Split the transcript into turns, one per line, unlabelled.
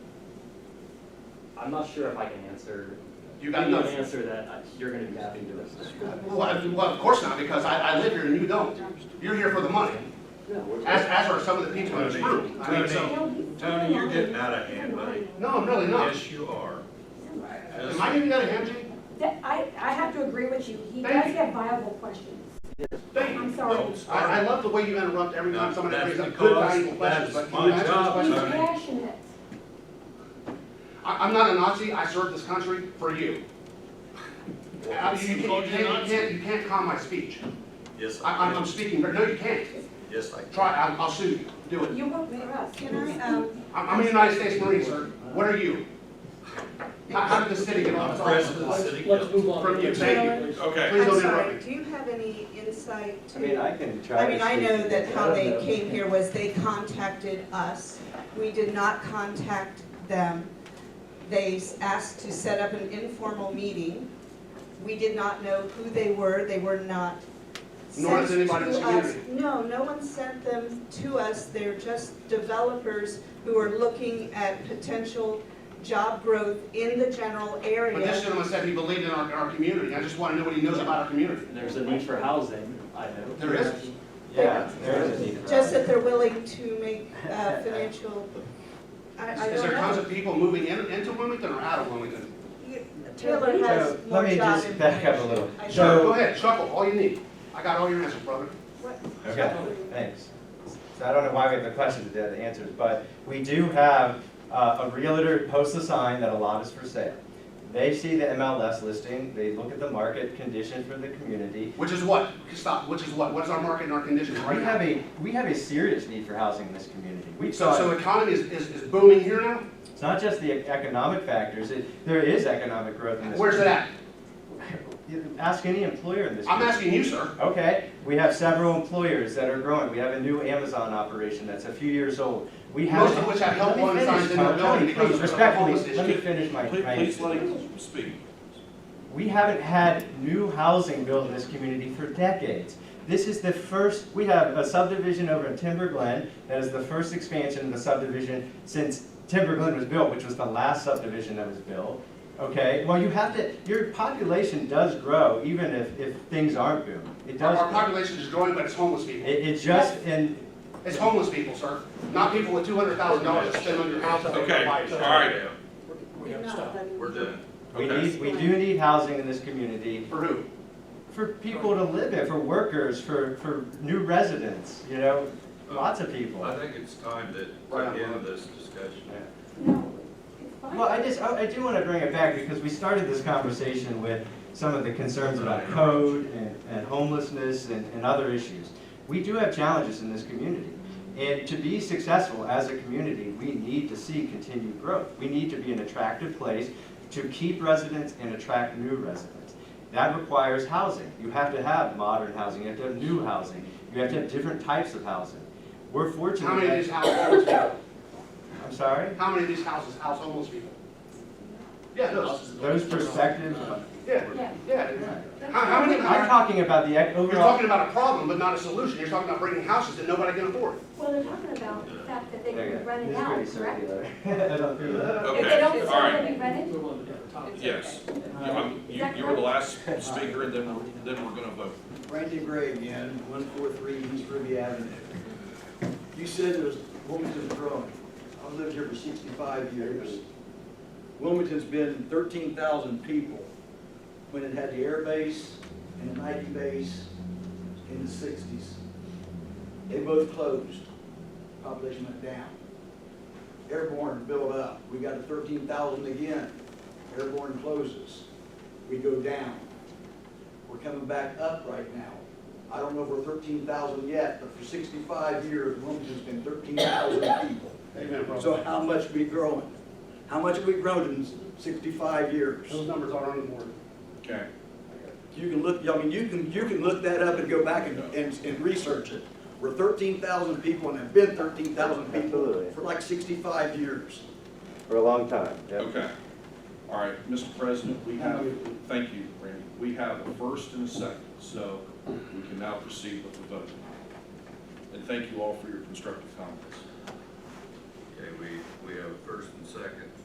I'm not sure if I can answer.
You got
give an
nothing.
Answer that I- you're gonna be happy with.
Well, I- well, of course not, because I, I live here and you don't. You're here for the money, as, as are some of the people in this room. I mean,
Tony, Tony, you're getting out of hand, buddy.
No, I'm really not.
Yes, you are.
Am I getting out of hand, Gene?
That, I, I have to agree with you, he
Thank
does
you.
have viable questions.
Thank you.
I'm sorry.
No,
He's
I, I love the way you interrupt every time
No,
somebody
that's
brings up
because
good valuable questions, but
that's
can you
my
answer this
job,
question?
sir.
passionate.
I, I'm not a Nazi, I served this country for you. Uh, You you can't, you can't- you can't, you can't calm my speech.
Yes,
I,
I
I'm, I'm
can.
speaking, no, you can't.
Yes, I can.
Try, I'll, I'll sue you, do it.
You work for us.
Can I, um,
I'm, I'm a United States Marine, sir. What are you? How, how did this city get off?
I'm president of the city
Let's
council.
move on.
From you, thank you.
Okay.
Please don't
I'm
interrupt
sorry,
me.
do you have any insight to?
I mean, I can try.
I mean,
to
I
speak
know
to
that
it.
how
I
they
don't know.
came here was they contacted us. We did not contact them. They s- asked to set up an informal meeting. We did not know who they were, they were not
Nor
sent
does
to
anybody in this
us.
community.
No, no one sent them to us, they're just developers who are looking at potential job growth in the general area.
But this gentleman said he believed in our, our community. I just want to know what he knows about our community.
There's a need for housing, I know.
There is.
Yeah, there is a need for.
Just that they're willing to make uh, financial, I, I
Is
don't
there tons
know.
of people moving in, into Wilmington or out of Wilmington?
You- Taylor has
So,
more
Let me
job
just back up a
information.
little.
I
So-
Sure, go ahead, chuckle, all you need. I got all your answers, brother.
Okay, thanks. So I don't know why we have a question that the answers, but we do have uh, a realtor posts a sign that a lot is for sale. They see the MLS listing, they look at the market conditions for the community.
Which is what? Stop, which is what? What is our market and our conditions
We
right now?
have a, we have a serious need for housing in this community. We
So,
saw,
so
it.
economy is, is, is booming here now?
it's not just the economic factors, it, there is economic growth in this.
Where's it at?
You Ask any employer in this.
I'm
community.
asking you, sir.
Okay, we have several employers that are growing. We have a new Amazon operation that's a few years old. We have.
Most of which have help
Let me
wanted
finish,
signs in their
Tom.
building because
Please,
of the
Respectfully,
homeless
let me
issue.
finish my,
Please,
my.
please let him speak.
We haven't had new housing built in this community for decades. This is the first, we have a subdivision over in Timber Glen that is the first expansion of the subdivision since Timber Glen was built, which was the last subdivision that was built. Okay, well, you have to, your population does grow even if, if things aren't booming. It
Our,
does.
our
grow.
population is growing, but it's homeless people.
It, it just, and
It's homeless people, sir. Not people with two hundred thousand dollars to spend on your house. that they
Okay,
buy.
all right,
We
You're
gotta
not
stop.
letting-
we're done.
we
Okay.
need, we do need housing in this community
For who?
for people to live in, for workers, for, for new residents, you know, lots of people.
I think it's time that we end this discussion.
No, it's fine.
Well, I just, I I do want to bring it back because we started this conversation with some of the concerns about code and- and homelessness and, and other issues. We do have challenges in this community. And to be successful as a community, we need to see continued growth. We need to be an attractive place to keep residents and attract new residents. That requires housing. You have to have modern housing, you have to have new housing, you have to have different types of housing. We're fortunate
How many of
that-
these houses homeless people?
I'm sorry?
How many of these houses house homeless people? Yeah, those.
Those perspectives,
Yeah,
Yeah.
yeah. How, how many,
I'm talking about the ec-
you're
overall.
talking about a problem, but not a solution. You're talking about bringing houses that nobody can afford.
Well, they're talking about the fact that they
There you
can be
go.
rented
This is pretty
out, correct?
circular. I don't think that-
If they
Okay, all
don't sell,
right,
they'll be rented?
Move on to different topics.
yes. You- um, You, you were the last speaker, and then, we're- then we're gonna vote.
Randy Gray again, one four three East Ruby Avenue. You said there's, Wilmington's growing. I've lived here for sixty-five years. Wilmington's been thirteen thousand people when it had the air base and the Nike base in the sixties. They both closed, population went down. Airborne built up, we got to thirteen thousand again. Airborne closes, we go down. We're coming back up right now. I don't know if we're thirteen thousand yet, but for sixty-five years, Wilmington's been thirteen thousand people.
Amen, brother.
So how much we growing? How much we grown in sixty-five years?
Those numbers are on the board.
Okay.
You can look, I mean, you can, you can look that up and go back and, and, and research it. We're thirteen thousand people and have been thirteen thousand people
Absolutely.
for like sixty-five years.
For a long time, yep.
Okay. All right, Mr. President, we have, thank you, Randy. We have a first and a second, so we can now proceed with the vote. And thank you all for your constructive comments.
Okay, we, we have a first and second